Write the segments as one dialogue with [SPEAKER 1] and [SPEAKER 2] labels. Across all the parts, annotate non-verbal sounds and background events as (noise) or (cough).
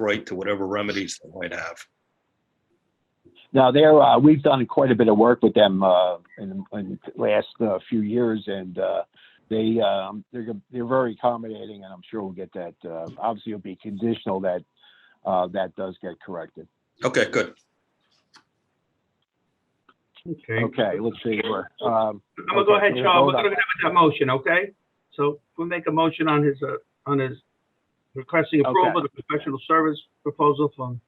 [SPEAKER 1] right to whatever remedies they might have.
[SPEAKER 2] Now they're uh, we've done quite a bit of work with them uh, in, the, in the last uh, few years, and uh, they um, they're go- they're very accommodating, and I'm sure we'll get that. Uh, obviously, it'll be conditional that uh, that does get corrected.
[SPEAKER 1] Okay, good.
[SPEAKER 3] Okay.
[SPEAKER 2] Okay, let's see. We're, um,
[SPEAKER 3] I'm gonna go ahead,
[SPEAKER 2] okay,
[SPEAKER 3] Charles.
[SPEAKER 2] hold on.
[SPEAKER 3] We're gonna go with that motion, okay? So we'll make a motion on his, uh, on his requesting approval of the professional service proposal from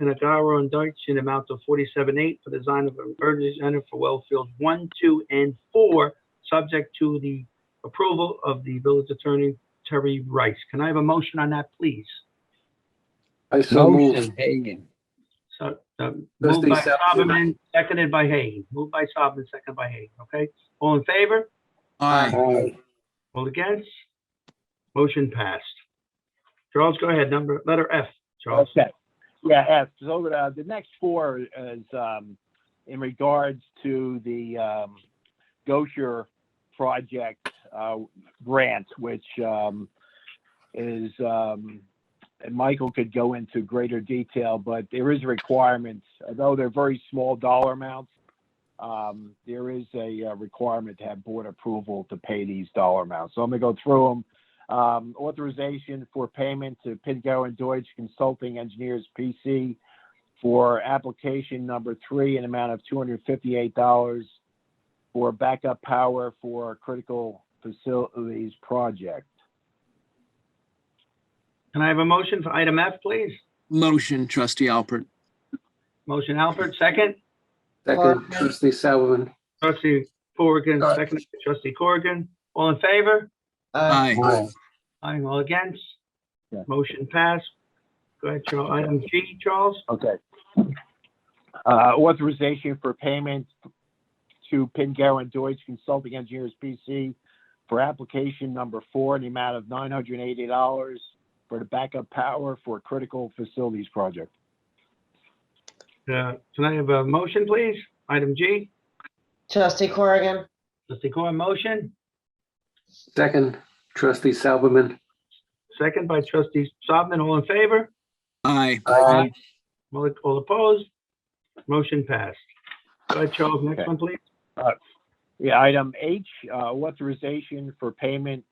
[SPEAKER 3] Pinagaro and Deutsch in the amount of forty-seven eight for the design of an emergency center for well fields one, two, and four, subject to the approval of the village attorney Terry Rice. Can I have a motion on that, please?
[SPEAKER 4] I so move.
[SPEAKER 5] Motion Hagan.
[SPEAKER 3] So, um, moved
[SPEAKER 4] Trustee
[SPEAKER 3] by
[SPEAKER 4] Sal-
[SPEAKER 3] Soberman, seconded by Hagan. Moved by Soberman, seconded by Hagan, okay? All in favor?
[SPEAKER 6] Aye.
[SPEAKER 4] Aye.
[SPEAKER 3] All against? Motion passed. Charles, go ahead, number, letter F, Charles.
[SPEAKER 2] Okay. Yeah, F. So uh, the next four is um, in regards to the um, Gosher project uh, grant, which um, is, um, and Michael could go into greater detail, but there is requirements, although they're very small dollar amounts. Um, there is a uh, requirement to have board approval to pay these dollar amounts. So I'm going to go through them. Um, authorization for payment to Pidgo and Deutsch Consulting Engineers PC for application number three, an amount of two hundred fifty-eight dollars for backup power for critical facilities project.
[SPEAKER 3] Can I have a motion for item F, please?
[SPEAKER 6] Motion, trustee Alpert.
[SPEAKER 3] Motion Alfred, second.
[SPEAKER 4] Second, trustee Salomon.
[SPEAKER 3] Trustee Corrigan, second. Trustee Corrigan, all in favor?
[SPEAKER 6] Aye.
[SPEAKER 3] Aye, all against?
[SPEAKER 2] Yeah.
[SPEAKER 3] Motion passed. Go ahead, Charles. Item G, Charles.
[SPEAKER 2] Okay. Uh, authorization for payment to Pingarrow and Deutsch Consulting Engineers PC for application number four, in the amount of nine hundred eighty dollars for the backup power for critical facilities project.
[SPEAKER 3] Uh, Can I have a motion, please? Item G,
[SPEAKER 7] Trustee Corrigan,
[SPEAKER 3] trustee Corrigan, motion,
[SPEAKER 4] Second, trustee Salomon.
[SPEAKER 3] second by trustee Sobbin, all in favor?
[SPEAKER 6] Aye.
[SPEAKER 4] Aye.
[SPEAKER 3] All all opposed? Motion passed. Go ahead, Charles, next
[SPEAKER 2] Okay.
[SPEAKER 3] one, please.
[SPEAKER 2] Yeah, item H, uh, authorization for payment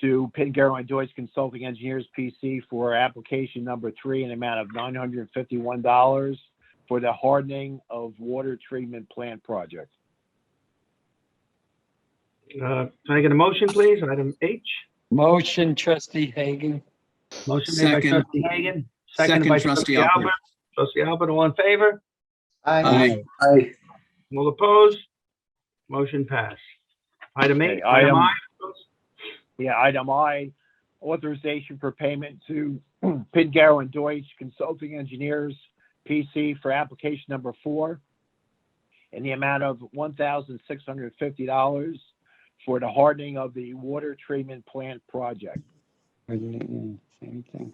[SPEAKER 2] to Pingarrow and Deutsch Consulting Engineers PC for application number three in the amount of nine hundred and fifty-one dollars for the hardening of water treatment plant project.
[SPEAKER 3] Uh, Can I get a motion, please? Item H.
[SPEAKER 5] Motion trustee Hagan.
[SPEAKER 3] Motion made by
[SPEAKER 6] Second.
[SPEAKER 3] trustee Hagan, seconded
[SPEAKER 6] Second,
[SPEAKER 3] by trustee
[SPEAKER 6] trustee Alpert.
[SPEAKER 3] Albert. Trustee Albert, all in favor?
[SPEAKER 7] aye.
[SPEAKER 6] Aye.
[SPEAKER 4] Aye.
[SPEAKER 3] All opposed? Motion passed. Item
[SPEAKER 2] Okay,
[SPEAKER 3] eight.
[SPEAKER 2] item-
[SPEAKER 3] I.
[SPEAKER 2] Yeah, item I, authorization for payment to (clears throat) Pingarrow and Deutsch Consulting Engineers PC for application number four in the amount of one thousand six hundred and fifty dollars for the hardening of the water treatment plant project.
[SPEAKER 5] Same thing.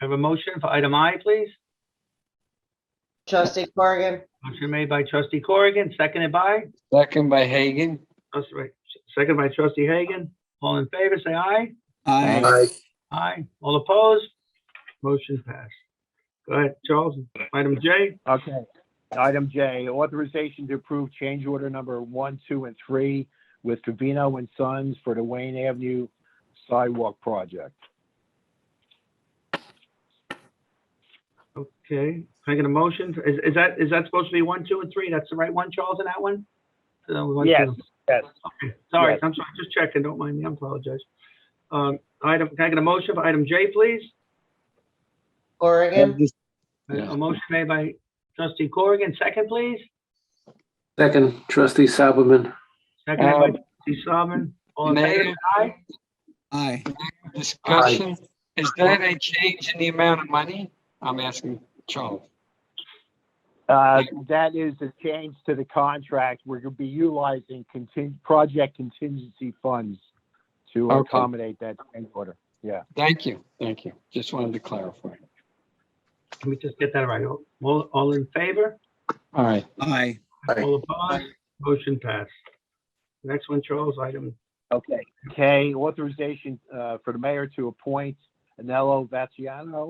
[SPEAKER 3] Have a motion for item I, please?
[SPEAKER 7] Trustee Corrigan,
[SPEAKER 3] Motion made by trustee Corrigan, seconded by,
[SPEAKER 5] Second by Hagan.
[SPEAKER 3] that's right, seconded by trustee Hagan. All in favor, say aye.
[SPEAKER 6] Aye.
[SPEAKER 4] Aye.
[SPEAKER 3] Aye. All opposed? Motion passed. Go ahead, Charles. Item J.
[SPEAKER 2] Okay. Item J, authorization to approve change order number one, two, and three with Covino and Sons for the Wayne Avenue sidewalk project.
[SPEAKER 3] Okay, can I get a motion? Is, is that, is that supposed to be one, two, and three? That's the right one, Charles, in that one? That was one,
[SPEAKER 2] Yes,
[SPEAKER 3] two.
[SPEAKER 2] yes.
[SPEAKER 3] Okay, Sorry,
[SPEAKER 2] Yes.
[SPEAKER 3] I'm sorry, just checking, don't mind me, I apologize. Um, item, can I get a motion for item J, please?
[SPEAKER 7] Corrigan,
[SPEAKER 5] Yeah.
[SPEAKER 3] A motion made by trustee Corrigan, second, please?
[SPEAKER 4] Second, trustee Salomon.
[SPEAKER 3] Second by
[SPEAKER 5] Um,
[SPEAKER 3] trustee Sullivan, all in favor,
[SPEAKER 5] Mayor,
[SPEAKER 3] aye?
[SPEAKER 6] Aye.
[SPEAKER 5] discussion, is that a change in the amount of money? I'm asking Charles.
[SPEAKER 2] Uh, That is a change to the contract. We're going to be utilizing contin- project contingency funds to
[SPEAKER 5] Okay.
[SPEAKER 2] accommodate that change order.
[SPEAKER 5] Thank you, thank you. Just wanted to clarify.
[SPEAKER 3] Let me just get that right. All, all in favor?
[SPEAKER 5] All right.
[SPEAKER 6] Aye.
[SPEAKER 4] Aye.
[SPEAKER 3] All opposed? Motion passed. Next one, Charles, item
[SPEAKER 2] Okay. K, authorization uh, for the mayor to appoint Anello Vaciano